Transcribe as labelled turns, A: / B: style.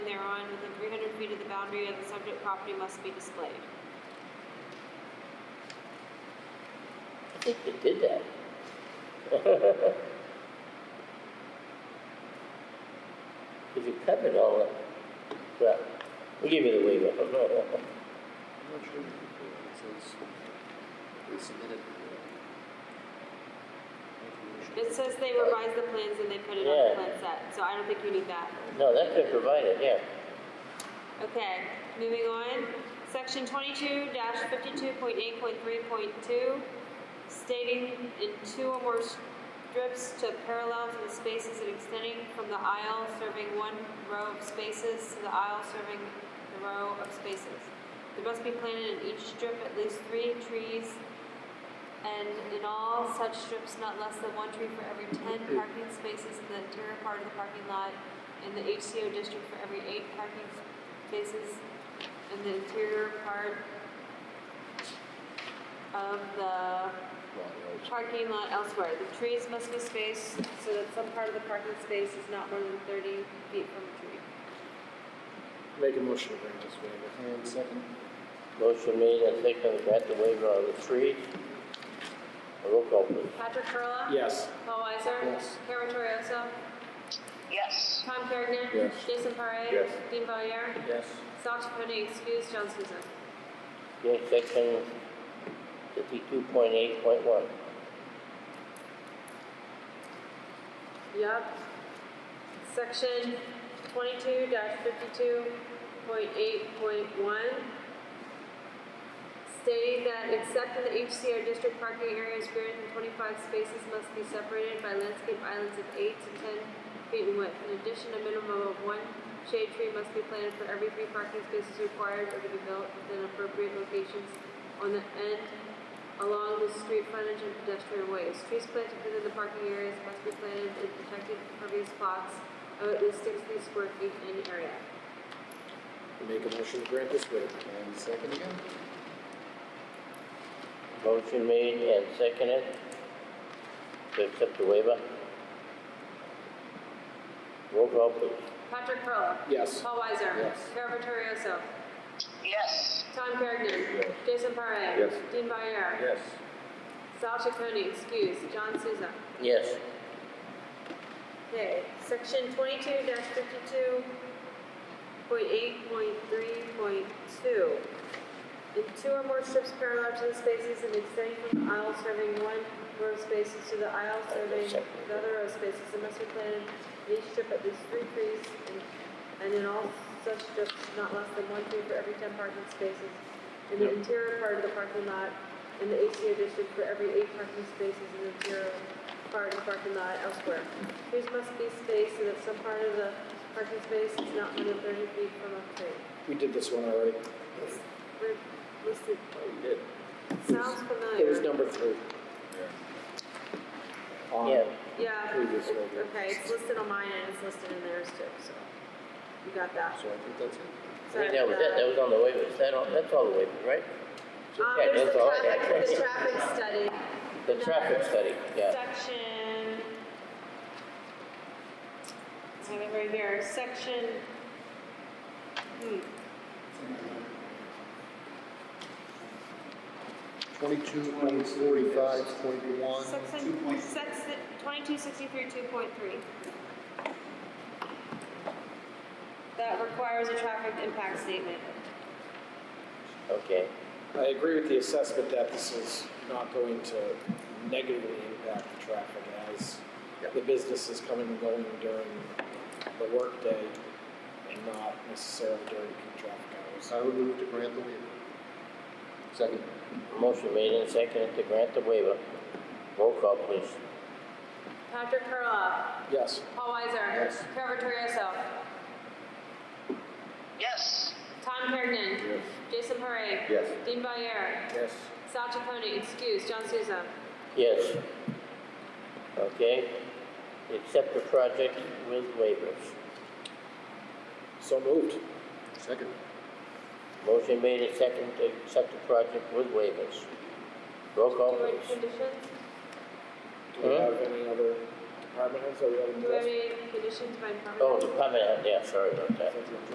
A: boundary of the subject property must be displayed.
B: I think they did that. If you covered all that, well, we give it a waiver.
C: I'm not sure if you can, it says, they submitted. uh,
A: It says they revised the plans and they put it on the
B: Yeah.
A: plan set, so I don't think you need that.
B: No, that's been provided, yeah.
A: Okay, moving on, section twenty-two fifty-two point eight point three point two, stating in two or more strips to parallel to the spaces and extending from the aisle serving one row of spaces to the aisle serving the row of spaces. There must be planted in each strip at least three trees, and in all such strips, not less than one tree for every ten parking spaces in the interior part of the parking lot, in the HCO district for every eight parking spaces in the interior part of the
C: lot of-
A: parking lot elsewhere. The trees must be spaced so that some part of the parking space is not more than thirty feet from a tree.
C: Make a motion to bring this waiver. And second?
B: Motion made and seconded, grant the waiver on the three. Roll call, please.
A: Patrick Perla?
C: Yes.
A: Paul Weiser?
C: Yes.
A: Carol Torriello?
D: yes,
A: Tom Kerrigan?
C: Yes.
A: Jason Parre?
C: Yes.
A: Dean Valier?
C: Yes.
A: Sasha Cooney, excuse John Souza.
B: Okay, section fifty-two point eight point one.
A: Yep. Section twenty-two fifty-two point eight point one. Stating that except in the HCR district, parking areas greater than twenty-five spaces must be separated by landscape islands of eight to ten feet in width. In addition, a minimum of one shade tree must be planted for every three parking spaces required or to be built within appropriate locations on the end along the street frontage and pedestrian ways. Trees planted within the parking areas must be planted in protected impervious plots of at least sixty square feet in area.
C: Make a motion to grant this waiver. And second again?
B: Motion made and seconded to accept the waiver. Roll call, please.
A: Patrick Perla.
C: Yes.
A: Paul Weiser.
C: Yes.
A: Carol Vittorioso.
D: yes,
A: Tom Kerrigan.
C: Yes.
A: Jason Parre.
C: Yes.
A: Dean Valier.
C: Yes.
A: Sal Chaconi, excuse, John Souza.
B: Yes.
A: Okay, section twenty-two fifty-two point eight point three point two. If two or more strips parallel to the spaces and extending from the aisle serving one row of spaces to the aisle serving the other row of spaces, it must be planted in each strip at least three trees and, and in all such strips, not less than one tree for every ten parking spaces. In the interior part of the parking lot, in the ACO district for every eight parking spaces in the interior part of the parking lot elsewhere. Trees must be spaced so that some part of the parking space is not more than thirty feet from a tree.
C: We did this one already.
A: We're listed
C: We Oh, did.
A: Sounds
C: It was
A: familiar.
C: number three. Um, On
B: Yeah.
A: Yeah,
C: Previous
A: it-
C: logo.
A: okay, it's listed on mine and it's listed in theirs too, so you got that.
C: So I think that's it.
A: So,
B: Right, that was, that, that was on the waiver, is that all, that's all the waiver, right?
A: uh, Um,
B: Yeah,
A: there's the
B: that's all I
A: traffic, the
B: had.
A: traffic study.
B: The traffic study, yeah.
A: Section. I have it right here, section. hmm,
C: Twenty-two point forty-five point one.
A: Section, section, twenty-two sixty-three, two point three. That requires a traffic impact statement.
B: Okay,
E: I agree with the assessment that this is not going to negatively impact the traffic as the business is coming and going during the workday and not necessarily during peak traffic hours.
C: I would move to grant the waiver. Second.
B: motion made and seconded to grant the waiver. Roll call, please.
A: Patrick Perla.
E: Yes,
A: Paul Weiser.
C: Yes.
A: Carol Vittorioso.
D: yes,
A: Tom Hergen.
C: Yes.
A: Jason Parre.
C: Yes.
A: Dean Valier.
C: Yes.
A: Sal Chaconi, excuse, John Souza.
B: Yes. Okay, accept the project with waivers.
E: so moved.
C: Second.
B: Motion made and seconded to accept the project with waivers. Roll call, please.
A: conditions?
E: Do we
B: Huh?
E: have any other department heads that we haven't
A: Do we have
E: addressed?
A: any conditions by department?
B: Oh, department head, yeah, sorry about
E: I
B: that.
E: think we